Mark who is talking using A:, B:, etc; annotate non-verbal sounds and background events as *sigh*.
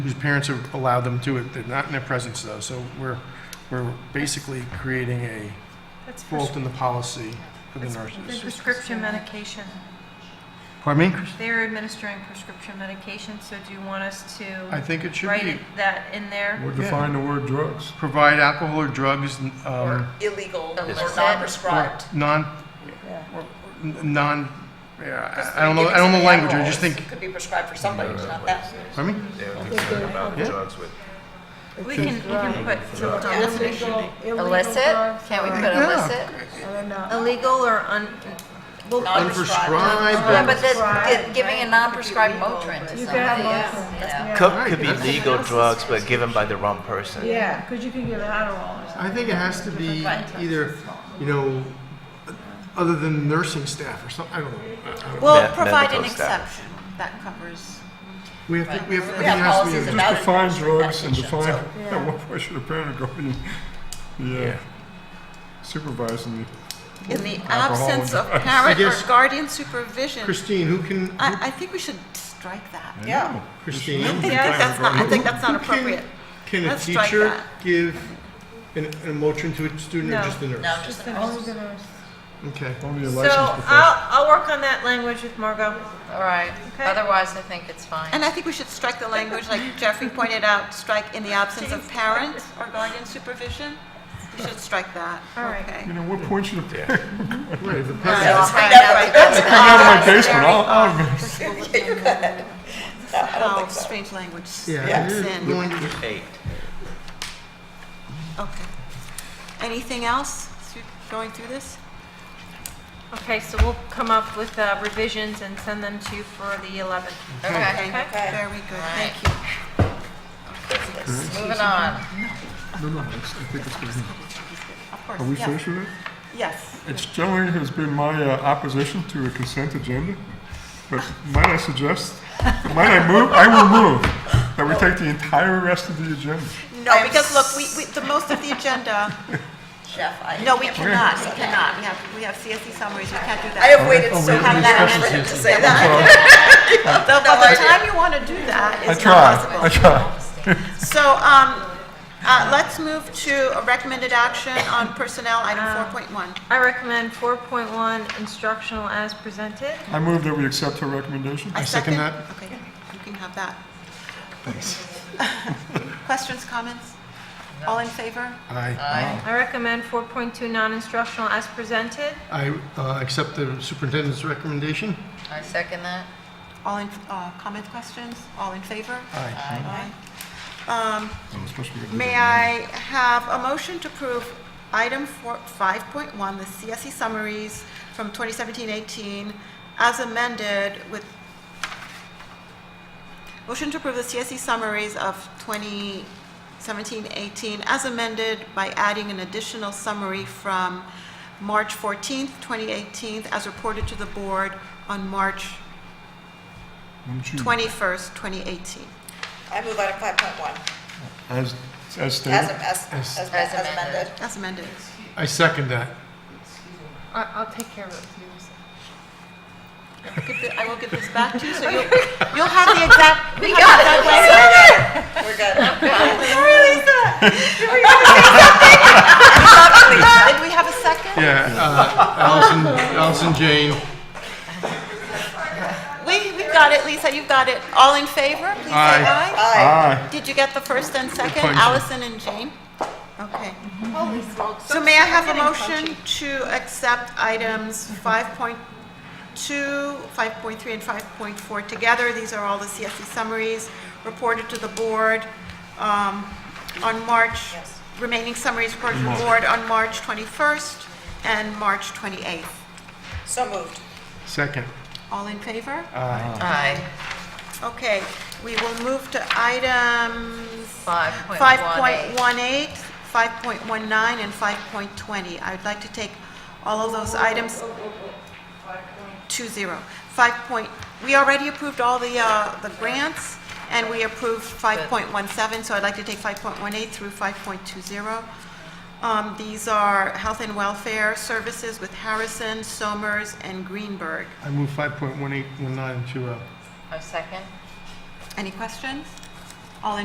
A: whose parents have allowed them to it. They're not in their presence though, so we're, we're basically creating a
B: That's
A: fault in the policy for the
B: The
A: nurses.
B: prescription medication,
A: Pardon me?
B: they're administering prescription medication, so do you want us
A: I
B: to
A: think it should
B: write
A: be,
B: it- that in there?
C: Or
A: Yeah.
C: define the word drugs.
A: provide alcohol or drugs, um,
D: illegal or
B: Illicit.
A: or
D: non-prescribed.
A: non, or n- non, yeah, I I don't know,
D: Giving
A: I don't know
D: somebody
A: language, I
D: alcohol
A: just think,
D: Could be prescribed for somebody, it's not that.
A: pardon me?
E: They were concerned about
A: Yeah.
E: drugs with
B: We can, you can put to eliminate.
F: Illicit? Can we put
A: Yeah.
F: illicit?
B: Illegal or un,
D: Non-prescribed.
F: Yeah, but
A: Unprescribed.
F: that's gi- giving a non-prescribed Motrin to somebody else.
G: Yeah,
E: Coke could be legal drugs, but given by the wrong person.
G: yeah, because you can give Adderall or something.
A: I think it has to be either, you know, other than nursing staff or something, I don't know. I- I don't know.
E: Well, Me- provide an medical staff.
F: that covers.
A: We have, to- we have, I
D: We
A: think it
D: have
A: has to be.
D: policies
A: a-
D: about-
C: Just define
D: it.
C: drugs and define,
D: So-
C: at *laughs* what point should a parent or guardian, yeah, supervising
H: In the
C: Alcohol
H: absence
C: and
H: of
C: drugs.
H: parent or
A: Yes.
H: guardian supervision,
A: Christine, who can, who-
H: I, I think we should strike that.
C: the.
D: Yeah.
A: Christine?
H: I think that's not, I think that's not appropriate.
A: Can a
H: Let's strike
A: teacher
H: that.
A: give an, an motion to a student or
B: No.
A: just a nurse?
D: No, just the nurses.
A: Okay.
C: Only a
B: so
C: licensed professional.
B: I'll, I'll work on that language with Margot.
F: All right,
B: Okay.
F: otherwise I think it's fine.
H: And I think we should strike the language, like Jeffrey pointed out, strike in the absence of parent or guardian supervision. We should strike that.
B: All right.
H: Okay.
C: You know, what point should a parent,
A: Right, if the
F: All
A: parent,
F: right,
D: Let's find
F: all
D: out
F: right,
D: what
F: that's
D: it
C: come out of my
F: very
C: basement, I'll, I'll,
H: *laughs* Oh, strange language.
A: yeah.
H: Yes,
A: it is
H: and-
A: going to-
E: Eight.
H: Okay. Anything else through- going through this?
B: Okay, so we'll come up with uh, revisions and send them to you for the 11th.
F: Okay,
B: Okay?
H: Very good, thank you.
F: moving on.
C: no, no, it's- I think it's good. Are we finished with it?
H: Yes.
C: It's generally has been my uh, opposition to a consent agenda, but might I suggest, might I move, I will move, that we take the entire rest of the agenda.
H: No, because look, we, we- the most of the *laughs* agenda,
D: Jeff, I.
H: no, we cannot, we cannot. We have, we have CSE summaries, we can't do that.
D: I have waited
C: Oh,
D: so
C: we have
D: long
C: discussions
D: for him to say that. *laughs*
H: So by
D: I
H: the
D: did.
H: time you want to do that,
C: I
H: it's
C: try,
H: not possible.
C: I try.
H: So, um, uh, let's move to a recommended action on personnel, item 4.1.
B: I recommend 4.1 instructional as presented.
C: I move that we accept her recommendation.
H: I
A: second that.
H: Okay, you can have that. Thanks. *laughs* Questions, comments? All in favor?
A: I,
B: I recommend 4.2 non-instructional as presented.
A: I uh, accept the superintendent's recommendation.
F: I second that.
H: All in, uh, comments, questions? All in favor?
A: Aye.
H: Aye.
C: I'm supposed to be-
H: May I have a motion to approve item four- 5.1, the CSE summaries from 2017-18, as amended with, motion to approve the CSE summaries of 2017-18, as amended by adding an additional summary from March 14th, 2018, as reported to the board on March
C: Wouldn't you-
H: 21st, 2018.
D: I move item five point one,
C: As, as stated.
D: as, am- as, as as
F: As amended.
D: amended.
H: As amended.
A: I second that.
B: I- I'll take care of it. for you, Lisa.
H: Give the- I will give this back to you, so you'll, you'll have the exact. We got
D: We're good.
H: Did we have a second?
A: Yeah, uh, Allison, Allison Jane,
H: We, we got it, Lisa, you've got it. All in favor, please say
A: Aye.
H: aye.
C: Aye.
H: Did you get the first and second,
A: Punch.
H: Allison and Jane? Okay. So may I have a motion to accept items 5.2, 5.3, and 5.4 together? These are all the CSE summaries reported to the board um, on March, remaining summaries reported to the board on March 21st and March 28th.
D: So moved.
A: second.
H: All in favor?
F: Aye,
H: Okay, we will move to items
F: 5.18.
H: 5.18, 5.19, and 5.20. I would like to take all of those items, 2-0. 5 point, we already approved all the, uh, the grants, and we approved 5.17, so I'd like to take 5.18 through 5.20. Um, These are health and welfare services with Harrison, Somers, and Greenberg.
A: I move 5.1819 to, uh,
F: I second.
H: Any questions?